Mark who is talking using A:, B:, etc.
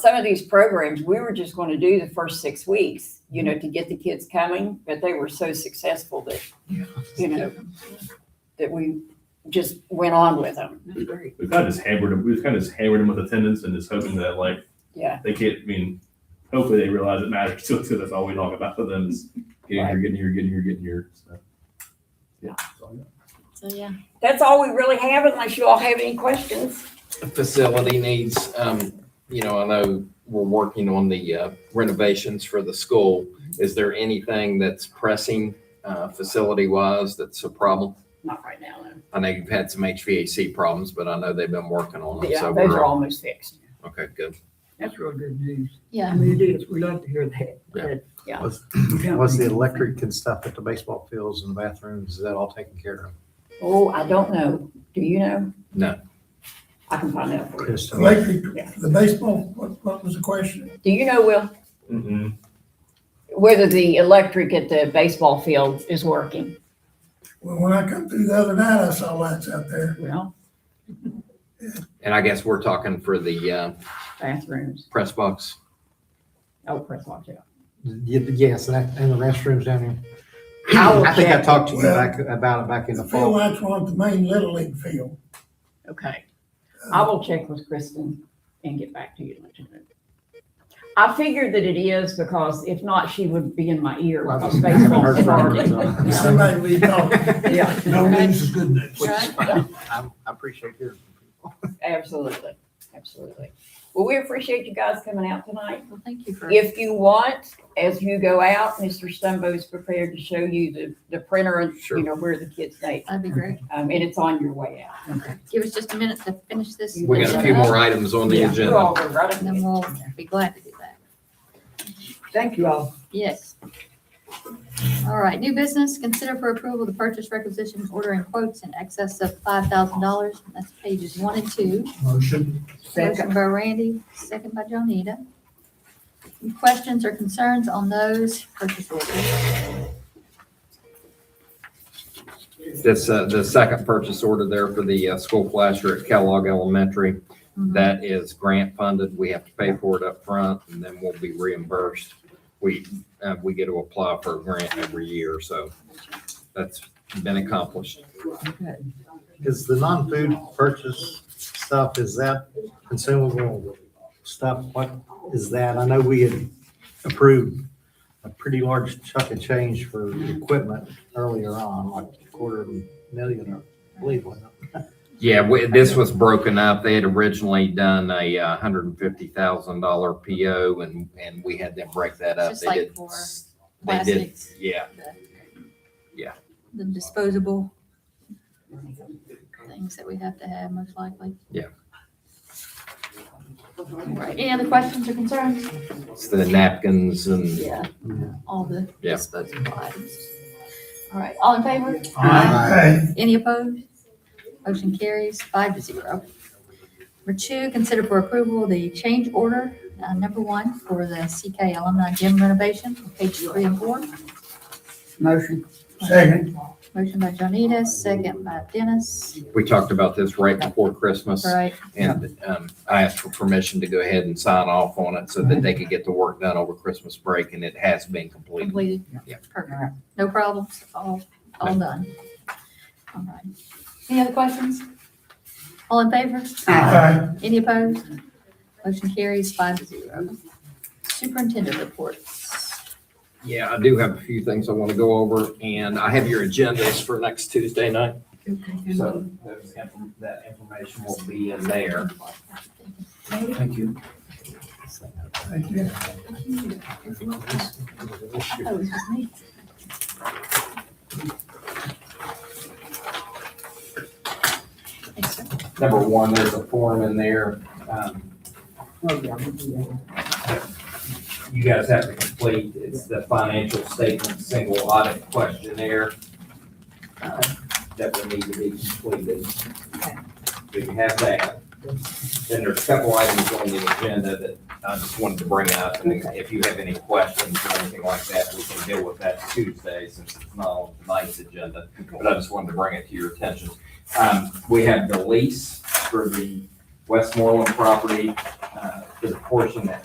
A: some of these programs, we were just going to do the first six weeks, you know, to get the kids coming, but they were so successful that, you know, that we just went on with them.
B: That's great.
C: We've kind of just hammered them. We've kind of just hammered them with attendance and just hoping that like
A: Yeah.
C: they can't. I mean, hopefully they realize it matters to us because that's all we talk about for them is getting here, getting here, getting here, getting here. So yeah. that's all I got.
D: So, yeah.
A: That's all we really have unless you all have any questions.
E: facility needs, um, you know, I know we're working on the uh, renovations for the school. Is there anything that's pressing, uh, facility wise that's a problem?
A: Not right now, though.
E: I know you've had some HVAC problems, but I know they've been working on them.
A: Yeah,
E: So
A: those are
E: we're,
A: almost fixed.
E: okay, good.
B: That's real good news. I
D: Yeah.
B: mean, it is. We love to hear that.
E: Yeah.
B: That-
A: Yeah.
F: Was-
B: Yeah.
F: Was the electric and stuff at the baseball fields and the bathrooms, is that all taken care of?
A: Oh, I don't know. Do you know?
E: No.
A: I can find out for you.
F: Just-
A: Yeah.
G: Electric, the baseball, what, what was the question?
A: Do you know, Will,
C: Mm-mm.
A: whether the electric at the baseball field is working?
G: Well, when I come through the other night, I saw lights out there.
A: Well,
E: And I guess we're talking for the, uh,
A: bathrooms.
E: press box.
A: Oh, press watch out.
F: Y- Yes, and that- and the restrooms down here.
A: I will
F: I think I
A: check.
F: talked to you back, about it back in the
G: The field
F: fall.
G: lights were on the main Little League field.
A: Okay. I will check with Kristen and get back to you. and let you know. I figured that it is because if not, she would be in my ear
F: Well, I
A: because
F: haven't heard
A: baseball's
F: from her,
A: started.
F: so-
G: Somebody we talked,
A: Yeah,
G: no news is good news.
F: Which is
D: Right.
F: fine. I'm- I appreciate your.
A: absolutely, absolutely. Well, we appreciate you guys coming out tonight.
D: Well, thank you for.
A: If you want, as you go out, Mr. Stumbo is prepared to show you the, the printer and,
E: Sure.
A: you know, where the kids' name.
D: That'd be great.
A: Um, and it's on your way out.
D: Give us just a minute to finish this.
E: We got a few more items on the
A: Yeah, we're
E: agenda.
A: all right.
D: And then we'll be glad to do that.
A: Thank you all.
D: Yes. All right, new business, consider for approval the purchase requisition order in quotes in excess of five thousand dollars. That's pages one and two.
G: Motion.
D: Motion by Randy, second by Jonita. Any Questions or concerns on those purchase orders?
E: That's, uh, the second purchase order there for the, uh, school flasher at Kellogg Elementary.
D: Mm-hmm.
E: That is grant funded. We have to pay for it up front, and then we'll be reimbursed. We, uh, we get to apply for a grant every year, so that's been accomplished.
F: Is the non-food purchase stuff, is that consumable stuff? What is that? I know we had approved a pretty large chunk of change for equipment earlier on, like a quarter of a million, I believe, wasn't it?
E: Yeah, we- this was broken up. They had originally done a uh, hundred and fifty thousand dollar PO, and, and we had them break that up.
D: It's just
E: They
D: like
E: did-
D: for
E: They did,
D: Plastics,
E: yeah,
D: the disposable things that we have to have most likely.
E: Yeah.
D: All right, any other questions or concerns?
E: it's the napkins and,
D: Yeah,
F: Yeah.
D: all the
E: Yeah.
D: disposable items. All right, all in favor?
G: Aye.
D: Any opposed? Motion carries five to zero. Number two, consider for approval the change order, uh, number one, for the CK alumni gym renovation, page three and four.
B: Motion.
G: Second.
D: Motion by Jonita, second by Dennis.
E: we talked about this right before Christmas.
D: All right,
E: And um, I asked for permission to go ahead and sign off on it so that they could get the work done over Christmas break, and it has been completed.
D: completed.
E: Yeah.
D: Perfect. No problems, all, all done. All right. Any other questions? All in favor?
G: Aye.
D: Any opposed? Motion carries five to zero. Superintendent reports.
E: Yeah, I do have a few things I want to go over, and I have your agendas for next Tuesday night. So those inf- that information will be in there. Thank you.
G: Thank you.
D: Oh, it's just me. Thanks, sir.
E: Number one, there's a form in there. um,
B: Oh, yeah, we do that.
E: you guys have to complete. It's the financial statement, single audit questionnaire uh, that will need to be completed. So you have that. Then there's a couple items on the agenda that I just wanted to bring up. And if you have any questions or anything like that, we can deal with that Tuesday since it's not on tonight's agenda. But I just wanted to bring it to your attention. Um, We have the lease for the Westmoreland property, uh, for the portion that